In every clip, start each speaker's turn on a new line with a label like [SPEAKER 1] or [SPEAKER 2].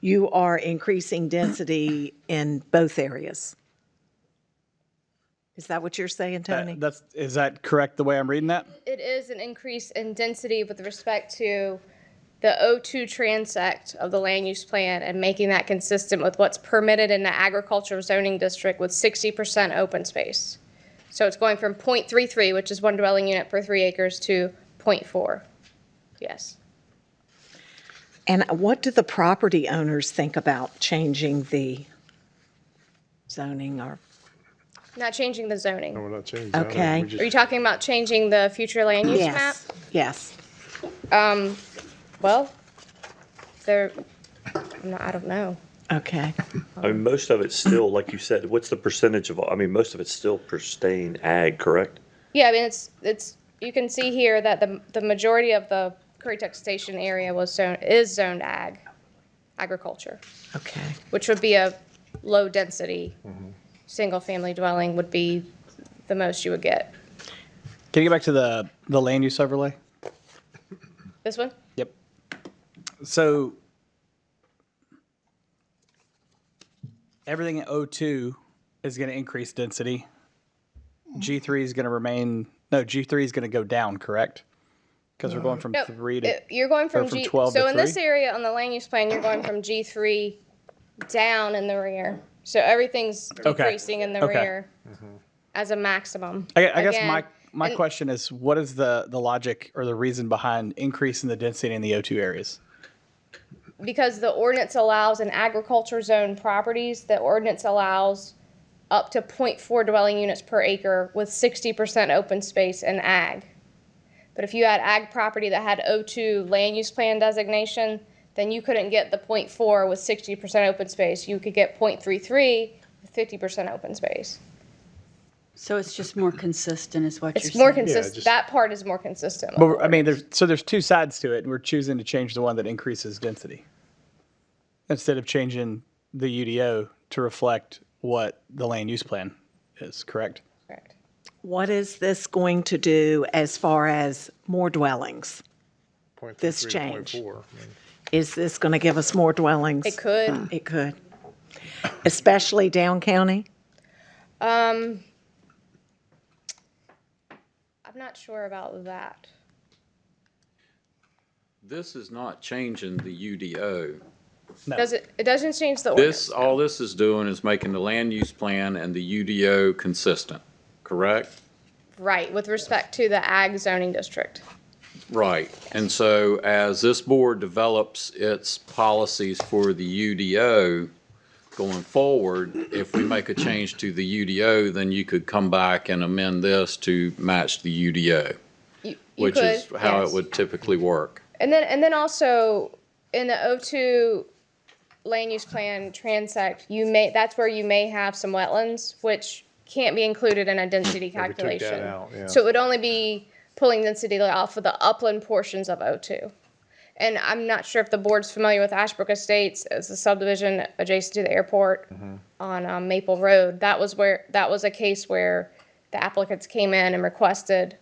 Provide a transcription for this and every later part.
[SPEAKER 1] you are increasing density in both areas. Is that what you're saying, Tony?
[SPEAKER 2] That- Uh, That's, is that correct, the way I'm reading that?
[SPEAKER 3] It is an increase in density with respect to the O2 transect of the land use plan and making that consistent with what's permitted in the agriculture zoning district with 60% open space. So it's going from .33, which is one dwelling unit per three acres, to .4. Yes.
[SPEAKER 1] And what do the property owners think about changing the zoning or,
[SPEAKER 3] Not changing the zoning.
[SPEAKER 4] We're not changing that.
[SPEAKER 1] Okay.
[SPEAKER 4] We
[SPEAKER 3] Are you
[SPEAKER 4] just-
[SPEAKER 3] talking about changing the future land use map?
[SPEAKER 1] yes, yes.
[SPEAKER 3] Well, there, I'm not- I don't know.
[SPEAKER 1] Okay,
[SPEAKER 5] I mean, most of it's still, like you said, what's the percentage of, I mean, most of it's still pristine ag, correct?
[SPEAKER 3] Yeah, I mean, it's, it's, you can see here that the, the majority of the Currituck Station area was zoned, is zoned ag, agriculture,
[SPEAKER 1] okay.
[SPEAKER 3] which would be a low-density,
[SPEAKER 2] Mm-hmm.
[SPEAKER 3] single-family dwelling would be the most you would get.
[SPEAKER 2] Can you get back to the, the land use overlay?
[SPEAKER 3] This one?
[SPEAKER 2] Yep. So everything in O2 is going to increase density. G3 is going to remain, no, G3 is going to go down, correct? Because we're going from
[SPEAKER 3] No,
[SPEAKER 2] three to,
[SPEAKER 3] it- You're going from
[SPEAKER 2] from
[SPEAKER 3] G,
[SPEAKER 2] 12 to
[SPEAKER 3] so in this
[SPEAKER 2] 3?
[SPEAKER 3] area on the land use plan, you're going from G three down in the rear. So everything's decreasing in the
[SPEAKER 2] Okay. Mm-hmm.
[SPEAKER 3] rear as a maximum.
[SPEAKER 2] I, I guess
[SPEAKER 3] Again,
[SPEAKER 2] my, my
[SPEAKER 3] and-
[SPEAKER 2] question is what is the, the logic or the reason behind increasing the density in the O2 areas?
[SPEAKER 3] because the ordinance allows in agriculture zone properties, the ordinance allows up to 0.4 dwelling units per acre with 60% open space in ag. But if you had ag property that had O2 land use plan designation, then you couldn't get the 0.4 with 60% open space. You could get 0.33 with 50% open space.
[SPEAKER 6] So it's just more consistent is what
[SPEAKER 3] It's
[SPEAKER 6] you're
[SPEAKER 3] more
[SPEAKER 6] saying?
[SPEAKER 3] consistent.
[SPEAKER 4] just-
[SPEAKER 3] That part is more consistent.
[SPEAKER 2] But we're- I mean, there's so there's two sides to it, and we're choosing to change the one that increases density instead of changing the UDO to reflect what the land use plan is. Correct.
[SPEAKER 3] Correct.
[SPEAKER 1] What is this going to do as far as more dwellings?
[SPEAKER 4] point three
[SPEAKER 1] this
[SPEAKER 4] three to point
[SPEAKER 1] change.
[SPEAKER 4] four. I mean,
[SPEAKER 1] Is this going to give us more dwellings?
[SPEAKER 3] It could.
[SPEAKER 1] It could, especially down county?
[SPEAKER 3] Um, I'm not sure about that.
[SPEAKER 7] This is not changing the UDO.
[SPEAKER 3] Does it, it doesn't change the
[SPEAKER 7] This,
[SPEAKER 3] ordinance.
[SPEAKER 7] all this is doing is making the land use plan and the UDO consistent, correct?
[SPEAKER 3] Right, with respect to the ag zoning district.
[SPEAKER 7] Right. And so as this board develops its policies for the UDO going forward, if we make a change to the UDO, then you could come back and amend this to match the UDO,
[SPEAKER 3] You- you
[SPEAKER 7] which is
[SPEAKER 3] could,
[SPEAKER 7] how it
[SPEAKER 3] yes.
[SPEAKER 7] would typically work.
[SPEAKER 3] And then, and then also in the O2 land use plan transect, you may, that's where you may have some wetlands, which can't be included in a density
[SPEAKER 4] we took that
[SPEAKER 3] calculation.
[SPEAKER 4] out, yeah.
[SPEAKER 3] So it would only be pulling density off of the upland portions of O2. And I'm not sure if the board's familiar with Ashbrook Estates, it's a subdivision adjacent to the airport
[SPEAKER 4] Mm-hmm.
[SPEAKER 3] on um, Maple Road. That was where, that was a case where the applicants came in and requested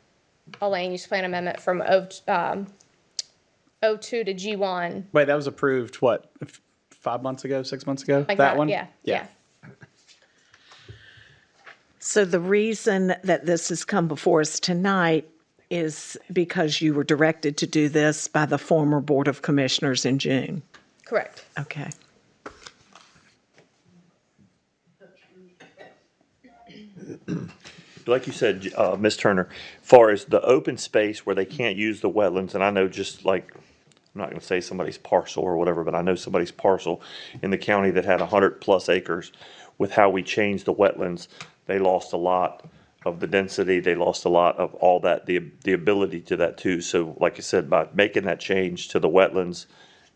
[SPEAKER 3] a land use plan amendment from O, um, O2 to G1.
[SPEAKER 2] Wait, that was approved what f- five months ago, six months ago?
[SPEAKER 3] Like
[SPEAKER 2] one?
[SPEAKER 3] Yeah, yeah.
[SPEAKER 1] So the reason that this has come before us tonight is because you were directed to do this by the former Board of Commissioners in June.
[SPEAKER 3] Correct.
[SPEAKER 1] Okay.
[SPEAKER 5] Like you said, uh, Ms. Turner, far as the open space where they can't use the wetlands, and I know just like, I'm not gonna say somebody's parcel or whatever, but I know somebody's parcel in the county that had hundred plus acres. With how we changed the wetlands, they lost a lot of the density, they lost a lot of all that, the, the ability to that too. So like you said, by making that change to the wetlands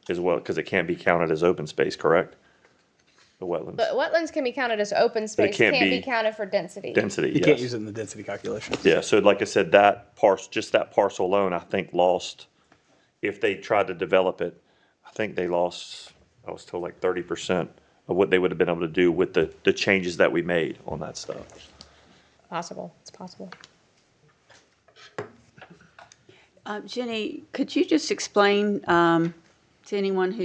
[SPEAKER 5] as well, because it can't be counted as open space, correct? The wetlands,
[SPEAKER 3] But wetlands can be counted as open space,
[SPEAKER 5] can't
[SPEAKER 3] can't be
[SPEAKER 5] be
[SPEAKER 3] counted for density.
[SPEAKER 5] density,
[SPEAKER 2] You can't
[SPEAKER 5] yes.
[SPEAKER 2] use it in the density calculation.
[SPEAKER 5] Yeah, so like I said, that parcel, just that parcel alone, I think lost, if they tried to develop it, I think they lost, I was told like thirty percent of what they would have been able to do with the, the changes that we made on that stuff.
[SPEAKER 3] Possible, it's possible.
[SPEAKER 6] Uh, Jenny, could you just explain um, to anyone who